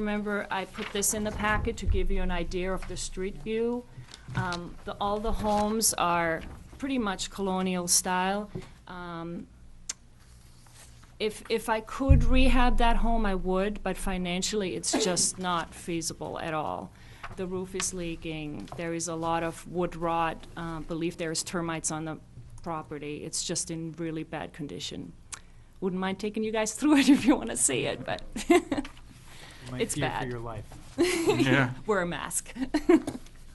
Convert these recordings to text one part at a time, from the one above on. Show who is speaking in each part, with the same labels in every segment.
Speaker 1: Remember, I put this in the packet to give you an idea of the street view. Um, the- All the homes are pretty much colonial style. Um, If, if I could rehab that home, I would, but financially, it's just not feasible at all. The roof is leaking, there is a lot of wood rot, uh, believe there is termites on the property. It's just in really bad condition. Wouldn't mind taking you guys through it if you want to see it, but It's
Speaker 2: Might fear
Speaker 1: bad.
Speaker 2: for your life.
Speaker 3: Yeah.
Speaker 1: wear a mask.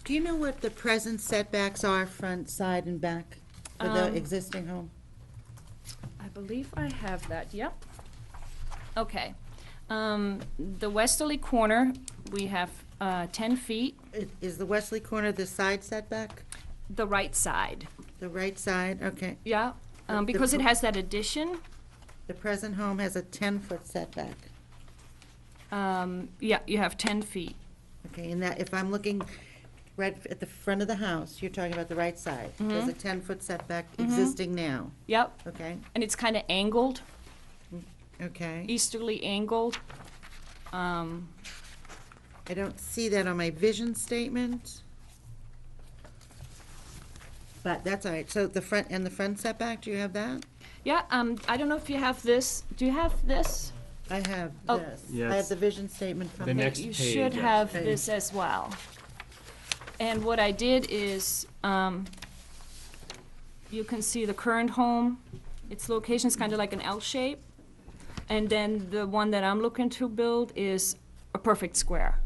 Speaker 4: Do you know what the present setbacks are, front, side, and back for the
Speaker 1: Um,
Speaker 4: existing home?
Speaker 1: I believe I have that, yep. Okay. Um, The westerly corner, we have uh, 10 feet,
Speaker 4: I- Is the westerly corner the side setback?
Speaker 1: the right side,
Speaker 4: The right side, okay.
Speaker 1: yeah? um,
Speaker 4: The- the
Speaker 1: Because it
Speaker 4: pro-
Speaker 1: has that addition,
Speaker 4: The present home has a 10-foot setback.
Speaker 1: um, yeah, you have 10 feet.
Speaker 4: Okay, and that, if I'm looking right at the front of the house, you're talking about the right side. There's a 10-foot setback existing now,
Speaker 1: Yep,
Speaker 4: okay?
Speaker 1: and it's kind of angled,
Speaker 4: Okay.
Speaker 1: easterly angled. Um,
Speaker 4: I don't see that on my vision statement. But that's all right. So the front, and the front setback, do you have that?
Speaker 1: Yeah, um, I don't know if you have this, do you have this?
Speaker 4: I have
Speaker 1: Oh.
Speaker 4: this. I
Speaker 3: Yes.
Speaker 4: have the vision statement from
Speaker 3: The
Speaker 4: the-
Speaker 3: next
Speaker 1: You
Speaker 3: page,
Speaker 1: should
Speaker 3: yes.
Speaker 1: have
Speaker 4: Page.
Speaker 1: this as well. And what I did is, um, you can see the current home, its location is kind of like an L shape. And then the one that I'm looking to build is a perfect square.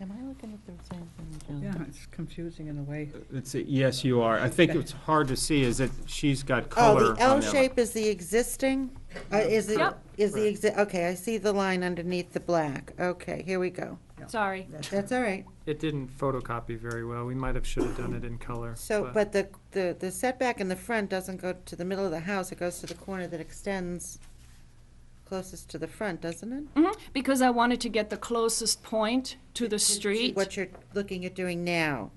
Speaker 4: Am I looking at the same thing, John?
Speaker 5: Yeah, it's confusing in a way.
Speaker 3: It's, yes, you are. I think it's hard to see is that she's got color.
Speaker 4: Oh, the L shape is the existing, uh, is it,
Speaker 1: Yep.
Speaker 4: is the exi, okay, I see the line underneath the black. Okay, here we go.
Speaker 1: Sorry.
Speaker 4: That's all right.
Speaker 2: It didn't photocopy very well. We might have, should have done it in color.
Speaker 4: So, but the, the the setback in the front doesn't go to the middle of the house, it goes to the corner that extends closest to the front, doesn't it?
Speaker 1: Mhm, Because I wanted to get the closest point to the street.
Speaker 4: What you're looking at doing now.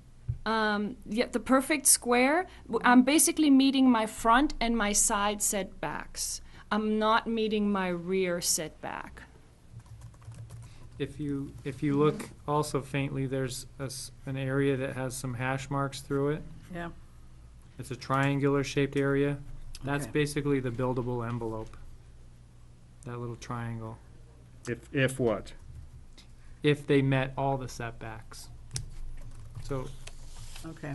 Speaker 1: Um, yeah, the perfect square. w- I'm basically meeting my front and my side setbacks. I'm not meeting my rear setback.
Speaker 2: If you, if you look also faintly, there's a s an area that has some hash marks through it.
Speaker 5: Yeah.
Speaker 2: It's a triangular shaped area. That's
Speaker 5: Okay.
Speaker 2: basically the buildable envelope. That little triangle.
Speaker 3: If, if what?
Speaker 2: If they met all the setbacks. So
Speaker 5: Okay.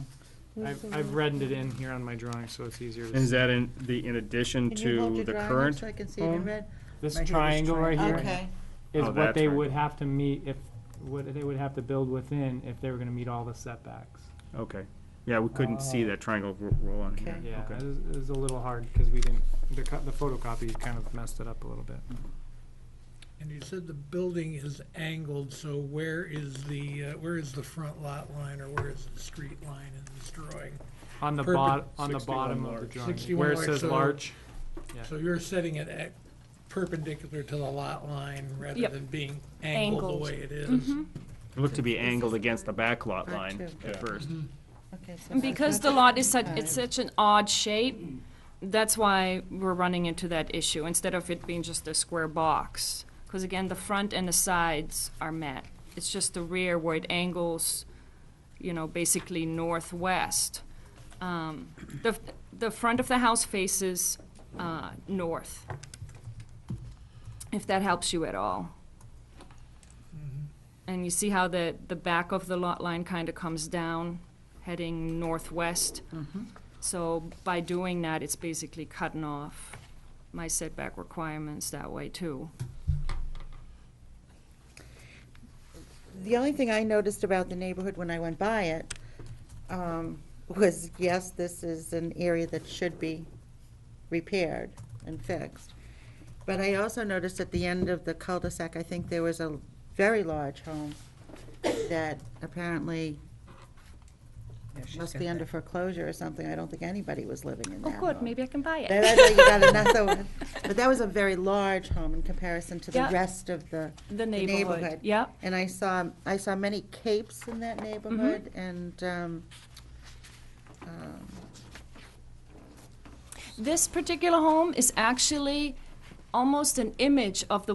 Speaker 2: I've, I've reddened it in here on my drawing, so it's easier to
Speaker 3: Is
Speaker 2: see.
Speaker 3: that in, the, in addition
Speaker 4: Can you hold
Speaker 3: to
Speaker 4: your
Speaker 3: the
Speaker 4: drawing up
Speaker 3: current?
Speaker 4: So I can see it in
Speaker 3: home?
Speaker 4: red?
Speaker 2: This
Speaker 5: Right here, this
Speaker 2: triangle right here.
Speaker 5: triangle.
Speaker 4: Okay,
Speaker 2: is
Speaker 3: Oh,
Speaker 2: what
Speaker 3: that's
Speaker 2: they
Speaker 3: right.
Speaker 2: would have to meet if, what they would have to build within if they were gonna meet all the setbacks.
Speaker 3: Okay. Yeah, we couldn't see
Speaker 2: Oh.
Speaker 3: that triangle r- roll on here.
Speaker 4: Okay.
Speaker 2: Yeah,
Speaker 3: Okay.
Speaker 2: it was, it was a little hard, cause we didn't, the co- the photocopy kind of messed it up a little bit.
Speaker 6: And you said the building is angled, so where is the, uh, where is the front lot line or where is the street line in this drawing?
Speaker 2: On the
Speaker 6: Perpen-
Speaker 2: bottom, on the
Speaker 3: 61
Speaker 2: bottom of the
Speaker 3: large.
Speaker 2: drawing,
Speaker 6: 61
Speaker 2: where it
Speaker 6: large,
Speaker 2: says
Speaker 6: so-
Speaker 2: large,
Speaker 6: So you're setting it at perpendicular to the lot line rather
Speaker 1: Yep.
Speaker 6: than being angled
Speaker 1: Angled.
Speaker 6: the way it is?
Speaker 3: It looked to be angled against the back lot
Speaker 4: That
Speaker 3: line
Speaker 4: too.
Speaker 3: at first.
Speaker 4: okay. so
Speaker 1: And
Speaker 4: that's
Speaker 1: Because
Speaker 4: not
Speaker 1: the lot is such, it's
Speaker 4: five.
Speaker 1: such an odd shape, that's why we're running into that issue, instead of it being just a square box. Because again, the front and the sides are met. It's just the rear where it angles, you know, basically northwest. Um, The, f- the front of the house faces uh, north, if that helps you at all. And you see how the, the back of the lot line kind of comes down, heading northwest? So by doing that, it's basically cutting off my setback requirements that way too.
Speaker 4: The only thing I noticed about the neighborhood when I went by it um, was, yes, this is an area that should be repaired and fixed. But I also noticed at the end of the cul-de-sac, I think there was a very large home that apparently
Speaker 5: Yeah, she's
Speaker 4: must
Speaker 5: got
Speaker 4: be
Speaker 5: that.
Speaker 4: under foreclosure or something. I don't think anybody was living in
Speaker 1: Oh,
Speaker 4: that
Speaker 1: good,
Speaker 4: home.
Speaker 1: maybe I can buy
Speaker 4: But
Speaker 1: it.
Speaker 4: I thought you got another one. But that was a very large home in comparison to the
Speaker 1: Yeah.
Speaker 4: rest of the
Speaker 1: The neighborhood, yep.
Speaker 4: and I saw, I saw many capes in that neighborhood, and, um, um,
Speaker 1: This particular home is actually almost an image of the